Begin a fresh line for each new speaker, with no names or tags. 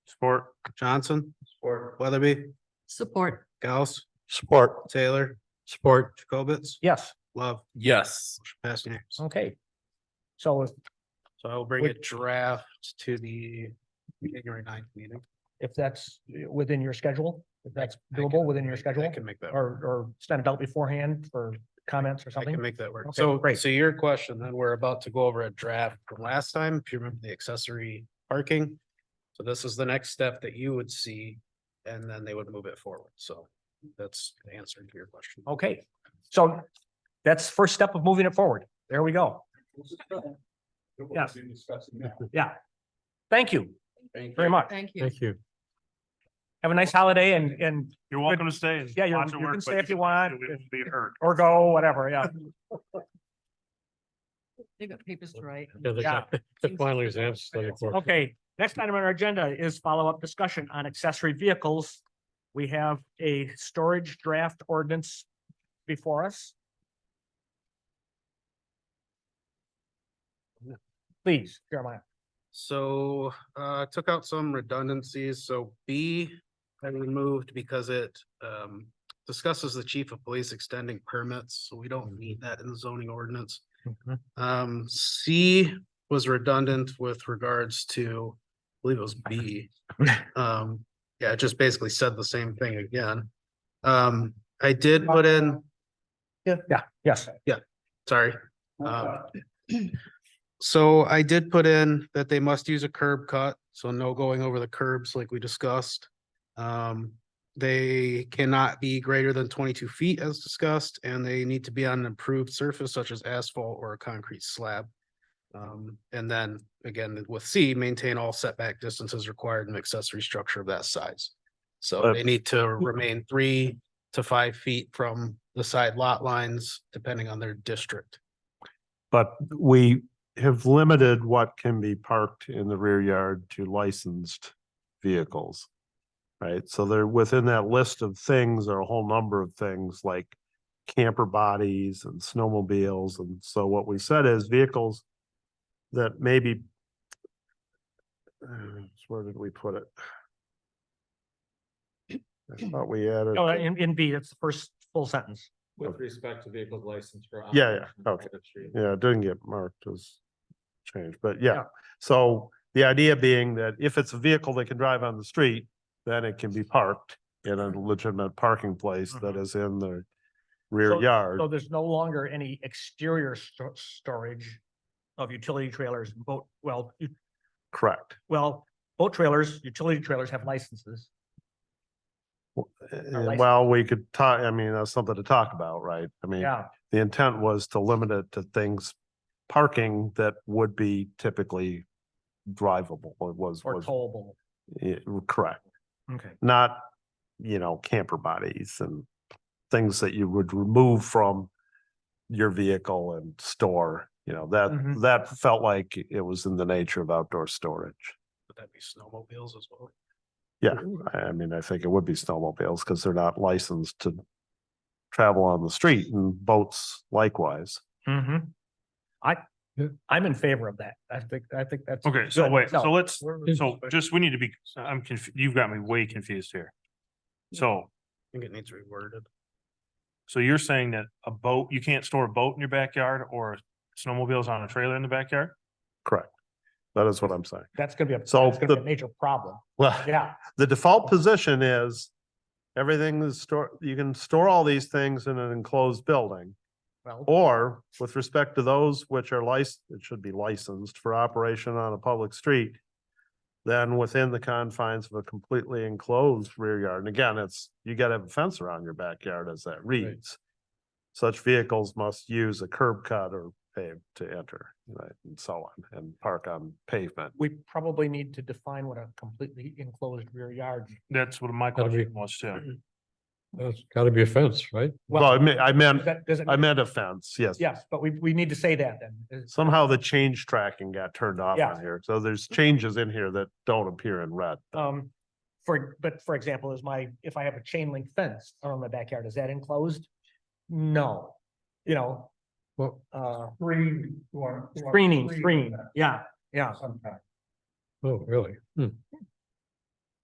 Support. Johnson. Support. Weatherby,
Support.
Gauss,
Support.
Taylor,
Support.
Jacobitz,
Yes,
Love,
Yes.
pass unanimous.
okay. So if-
So I will bring a draft to the January 9th meeting.
if that's within your schedule, if that's
I can-
doable within your
I
schedule,
can make that,
or,
work.
or send it out beforehand for comments or
I can
something?
make that work.
Okay,
So,
great.
so your question, then we're about to go over a draft from last time, if you remember the accessory parking. So this is the next step that you would see, and then they would move it forward. So that's the answer to your question.
Okay, so that's first step of moving it forward. There we go. Yes. Yeah. Thank you very much.
Thank you.
you.
Have a nice holiday and, and,
You're welcome to stay. and
Yeah, you're-
watch it
you can
work, but
stay if you
don't
want.
have to. It won't Be hurt.
or go, whatever, yeah.
They've got papers to write.
Yeah.
Finally,
Okay, next item on our agenda is follow-up discussion on accessory vehicles. We have a storage draft ordinance before us. Please, Jeremiah.
So uh took out some redundancies, so B I removed because it um discusses the chief of police extending permits, so we don't need that in the zoning ordinance.
Mm-hmm.
Um, C was redundant with regards to, I believe it was B. Um, yeah, it just basically said the same thing again. Um, I did put in,
Yeah. Yeah, yes.
sorry. Um, So I did put in that they must use a curb cut, so no going over the curbs like we discussed. Um, they cannot be greater than twenty-two feet as discussed, and they need to be on an improved surface such as asphalt or a concrete slab. Um, and then again, with C, maintain all setback distances required in accessory structure of that size. So they need to remain three to five feet from the side lot lines, depending on their district.
But we have limited what can be parked in the rear yard to licensed vehicles. Right? So they're within that list of things are a whole number of things like camper bodies and snowmobiles. And so what we said is vehicles that maybe uh, where did we put it? I thought we added.
Oh, in, in B, that's the first full sentence.
With respect to vehicles licensed for.
Yeah, yeah,
operation on
okay.
private street.
Yeah, it didn't get marked as changed, but yeah.
Yeah.
So the idea being that if it's a vehicle that can drive on the street, then it can be parked in a
Mm-hmm.
legitimate parking place that is in the rear
So-
yard.
So there's no longer any exterior sto- storage of utility trailers, boat, well, u-
Correct.
well, boat trailers, utility trailers have licenses.
And
license.
Well, we could talk, I mean, that's something to talk about, right? I mean,
Yeah,
the intent was to limit it to things, parking that would be typically drivable. It was,
or
was,
towable.
yeah, correct.
Okay.
not, you know, camper bodies and things that you would remove from your vehicle and store, you know, that,
Mhm.
that felt like it was in the nature of outdoor storage.
Would that be snowmobiles as well?
I, I mean, I think it would be snowmobiles because they're not licensed to travel on the street and boats likewise.
hmm I, I'm in favor of that. I think, I think that's.
Okay, so
good.
wait, so
No,
let's,
we're-
so just, we need to be, I'm confused, you've got me way confused here. So,
I think it needs reworded.
so you're saying that a boat, you can't store a boat in your backyard or snowmobiles on a trailer in the backyard?
Correct. That is what I'm saying.
That's gonna be a,
So
that's gonna be a
the-
major problem.
Well,
Yeah,
the default position is everything is store, you can store all these things in an enclosed building.
well,
Or with respect to those which are licensed, it should be licensed for operation on a public street. Then within the confines of a completely enclosed rear yard, and again, it's, you gotta have a fence around your backyard as that reads. Such vehicles must use a curb cut or pave to enter, right, and so on, and park on pavement.
we probably need to define what a completely enclosed rear yard.
That's what my
Gotta be-
question was too.
That's gotta be a fence, right?
Well, I mean, I meant,
does that- does it-
I meant a fence, yes.
Yes, but we, we need to say that then. Is-
Somehow the change tracking got turned off
Yeah.
on here, so there's changes in here that don't appear in red.
Um, for, but for example, is my, if I have a chain link fence around my backyard, is that enclosed? No, you know,
Well,
uh,
Screen. you want- you want
screening,
screen
screen, yeah, yeah.
Sometime.
oh, really? Hmm.